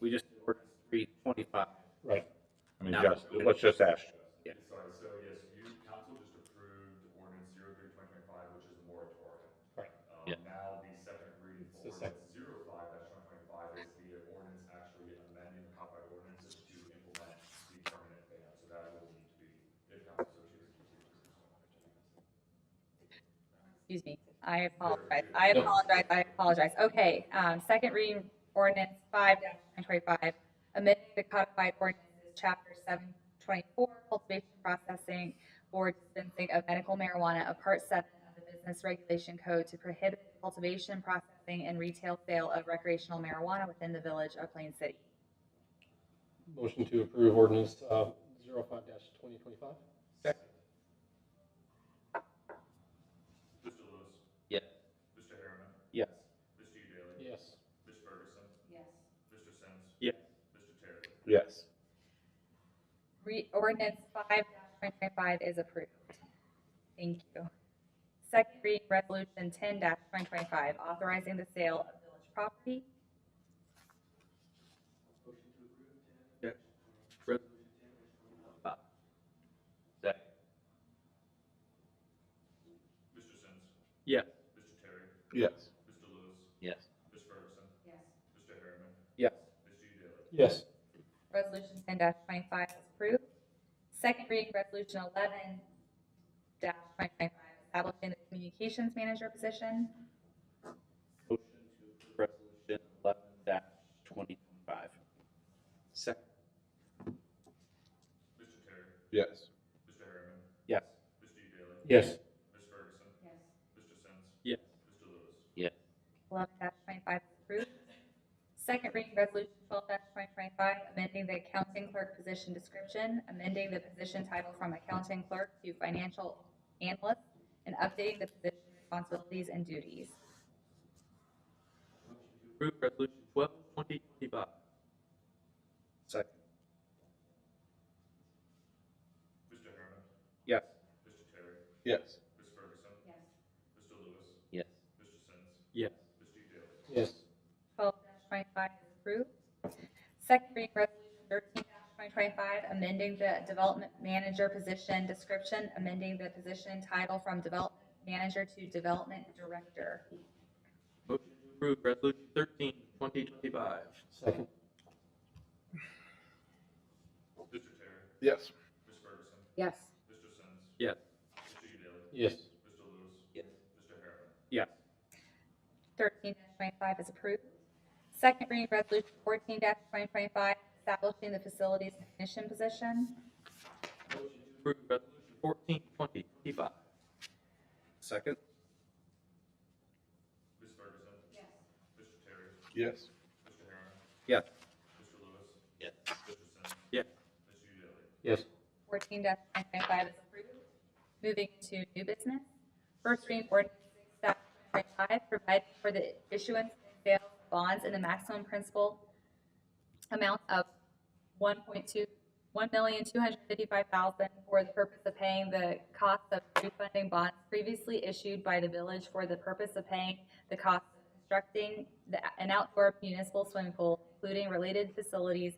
We just did ordinance three twenty-five. Right. I mean, No. just, let's just ask. Sorry, so yes, you, council just approved ordinance zero three twenty twenty-five, which is the moratorium. Right. Um, Yeah. Now, the second reading for the sec- ordinance zero five dash twenty twenty-five is the ordinance actually amending the codified ordinances to implement the permanent ban, so that will need to be, if council so chooses. to do so. Excuse me. I apologize. I apologize. I apologize. Okay, um, second reading ordinance five dash twenty-five, amending the codified ordinances, chapter seven twenty-four, cultivation, processing, or dispensing of medical marijuana, a part seven of the Business Regulation Code to prohibit the cultivation, processing, and retail sale of recreational marijuana within the village of Plain City. Motion to approve ordinance uh, zero five dash twenty twenty-five? Mr. Lewis, Yes. Mr. Harriman, Yes. Mr. Daly, Yes. Ms. Ferguson, Yes. Mr. Sims, Yes. Mr. Terry. Yes. Re, ordinance five twenty twenty-five is approved. Thank you. Second reading resolution ten twenty twenty-five, authorizing the sale of village property. Second. Mr. Sims, Yes. Mr. Terry, Yes. Mr. Lewis, Yes. Ms. Ferguson, Yes. Mr. Harriman, Yes. Mr. Daly, Yes. Resolution ten twenty-five is approved. Second reading resolution eleven twenty twenty-five, establishing the communications manager position. Motion to approve resolution eleven dash twenty twenty-five. Second. Mr. Terry, Yes. Mr. Harriman, Yes. Mr. Daly, Yes. Ms. Ferguson, Yes. Mr. Sims, Yes. Mr. Lewis, Yes. Eleven twenty-five is approved. Second reading resolution twelve twenty twenty-five, amending the accounting clerk position description, amending the position title from accounting clerk to financial analyst, and updating the position responsibilities and duties. Approve resolution twelve twenty twenty-five. Second. Mr. Harriman, Yes. Mr. Terry, Yes. Ms. Ferguson, Yes. Mr. Lewis, Yes. Mr. Sims, Yes. Mr. Daly, Yes. Twelve twenty-five is approved. Second reading resolution thirteen twenty twenty-five, amending the development manager position description, amending the position title from development manager to development director. Motion to approve resolution thirteen twenty twenty-five. Second. Mr. Terry, Yes. Ms. Ferguson, Yes. Mr. Sims, Yes. Mr. Daly, Yes. Mr. Lewis, Yes. Mr. Harriman, Yes. Thirteen twenty-five is approved. Second reading resolution fourteen twenty twenty-five, establishing the facilities technician position. Motion to approve resolution fourteen twenty twenty-five. Second. Ms. Ferguson, Mr. Terry, Yes. Mr. Harriman, Yes. Mr. Lewis, Yes. Mr. Sims, Yes. Mr. Daly, Yes. Fourteen twenty twenty-five is approved. Moving to new business. First reading ordinance six twenty twenty-five, providing for the issuance and sale of bonds in the maximum principal amount of one point two, one million two hundred fifty-five thousand for the purpose of paying the cost of refunding bonds previously issued by the village for the purpose of paying the cost of constructing the, an outdoor municipal swimming pool, including related facilities,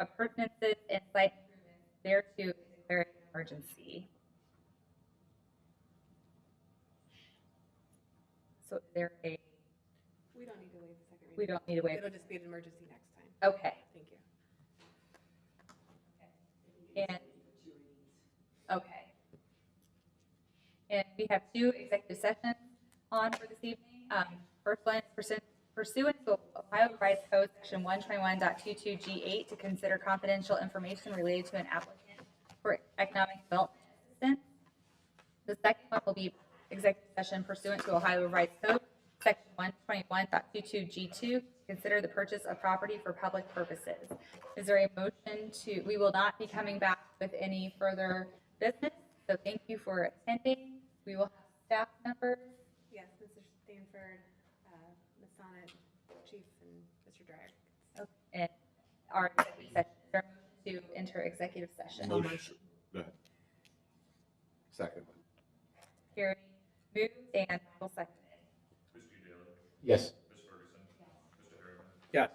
appurtenances, and site improvements thereto, declare an emergency. So is there a, We don't need to waive the second reading. we don't need to wait, It'll just be an emergency next time. okay, Thank you. and, okay. And we have two executive sessions on for this evening. Um, first one is pursuant- pursuant to Ohio Revised Code, section one twenty-one G eight, to consider confidential information related to an applicant for economic development assistance. The second one will be executive session pursuant to Ohio Revised Code, section one twenty-one G two, consider the purchase of property for public purposes. Is there a motion to, we will not be coming back with any further business, so thank you for attending. We will have staff members, Yes, Mr. Stanford, uh, Ms. Sonnet, Chief, and Mr. Drag. and our executive session, is there a motion to enter executive session. Motion. Go ahead. Second. Carrie moved and Michael seconded. Mr. Daly, Yes. Ms. Ferguson, Mr. Harriman, Yes.